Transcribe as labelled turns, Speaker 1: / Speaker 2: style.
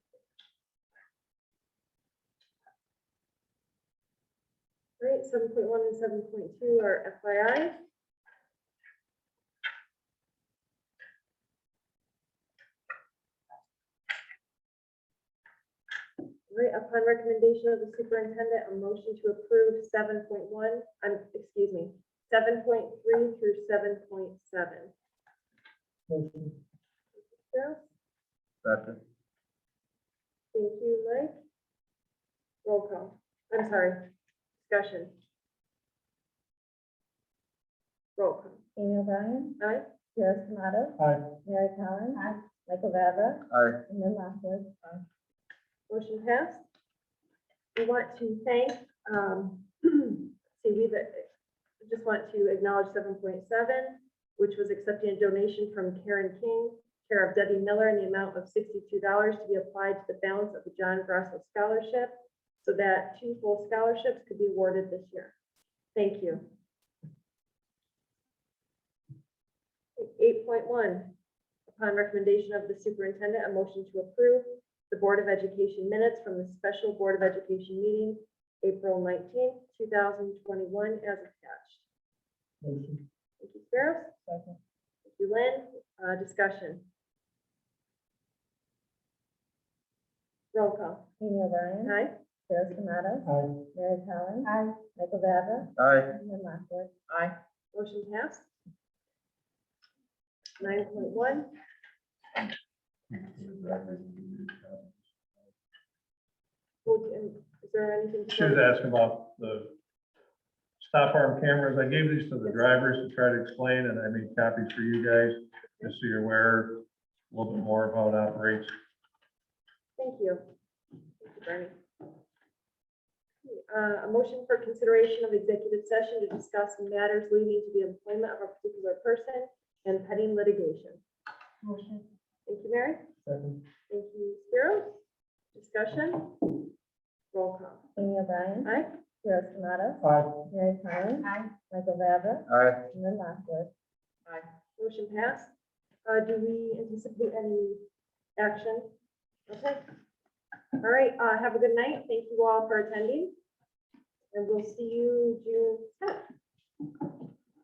Speaker 1: seven point one and seven point two are FYI. Right, upon recommendation of the superintendent, a motion to approve seven point one, um, excuse me, seven point three through seven point seven.
Speaker 2: Motion.
Speaker 3: Second.
Speaker 1: Thank you, Mike. Roll call. I'm sorry, discussion. Roll call.
Speaker 4: Amy O'Brien,
Speaker 1: Aye?
Speaker 4: Sarah Tomato,
Speaker 2: Aye.
Speaker 4: Mary Collins. Michael Vavra,
Speaker 3: Aye.
Speaker 4: and Lynn Lockwood.
Speaker 1: Motion passed. We want to thank, um, see, we just want to acknowledge seven point seven, which was accepting a donation from Karen King, care of Debbie Miller, in the amount of sixty-two dollars to be applied to the balance of the John Grosso Scholarship, so that two full scholarships could be awarded this year. Thank you. Eight point one, upon recommendation of the superintendent, a motion to approve the Board of Education minutes from the special Board of Education meeting, April nineteenth, two thousand twenty-one, as attached.
Speaker 2: Motion.
Speaker 1: Thank you, Sparrows.
Speaker 2: Second.
Speaker 1: Thank you, Lynn. Uh, discussion. Roll call.
Speaker 4: Amy O'Brien,
Speaker 1: Aye.
Speaker 4: Sarah Tomato,
Speaker 2: Aye.
Speaker 4: Mary Collins. Michael Vavra,
Speaker 3: Aye.
Speaker 4: and Lynn Lockwood.
Speaker 1: Motion passed. Nine point one, um, is there anything?
Speaker 2: She was asking about the stop arm cameras. I gave these to the drivers to try to explain, and I made copies for you guys, just so you're aware a little bit more of how it operates.
Speaker 1: Thank you. Thank you, Bernie. Uh, A motion for consideration of executive session to discuss matters leading to the employment of a particular person and pending litigation.
Speaker 4: Motion.
Speaker 1: Thank you, Mary.
Speaker 2: Second.
Speaker 1: Thank you, Spiro. Discussion? Roll call.
Speaker 4: Amy O'Brien,
Speaker 1: Aye?
Speaker 4: Sarah Tomato,
Speaker 2: Aye.
Speaker 4: Mary Collins. Michael Vavra,
Speaker 3: Aye.
Speaker 4: and Lynn Lockwood.
Speaker 1: Motion passed. Uh, do we anticipate any action? Okay. All right, uh, have a good night. Thank you all for attending. And we'll see you June tenth.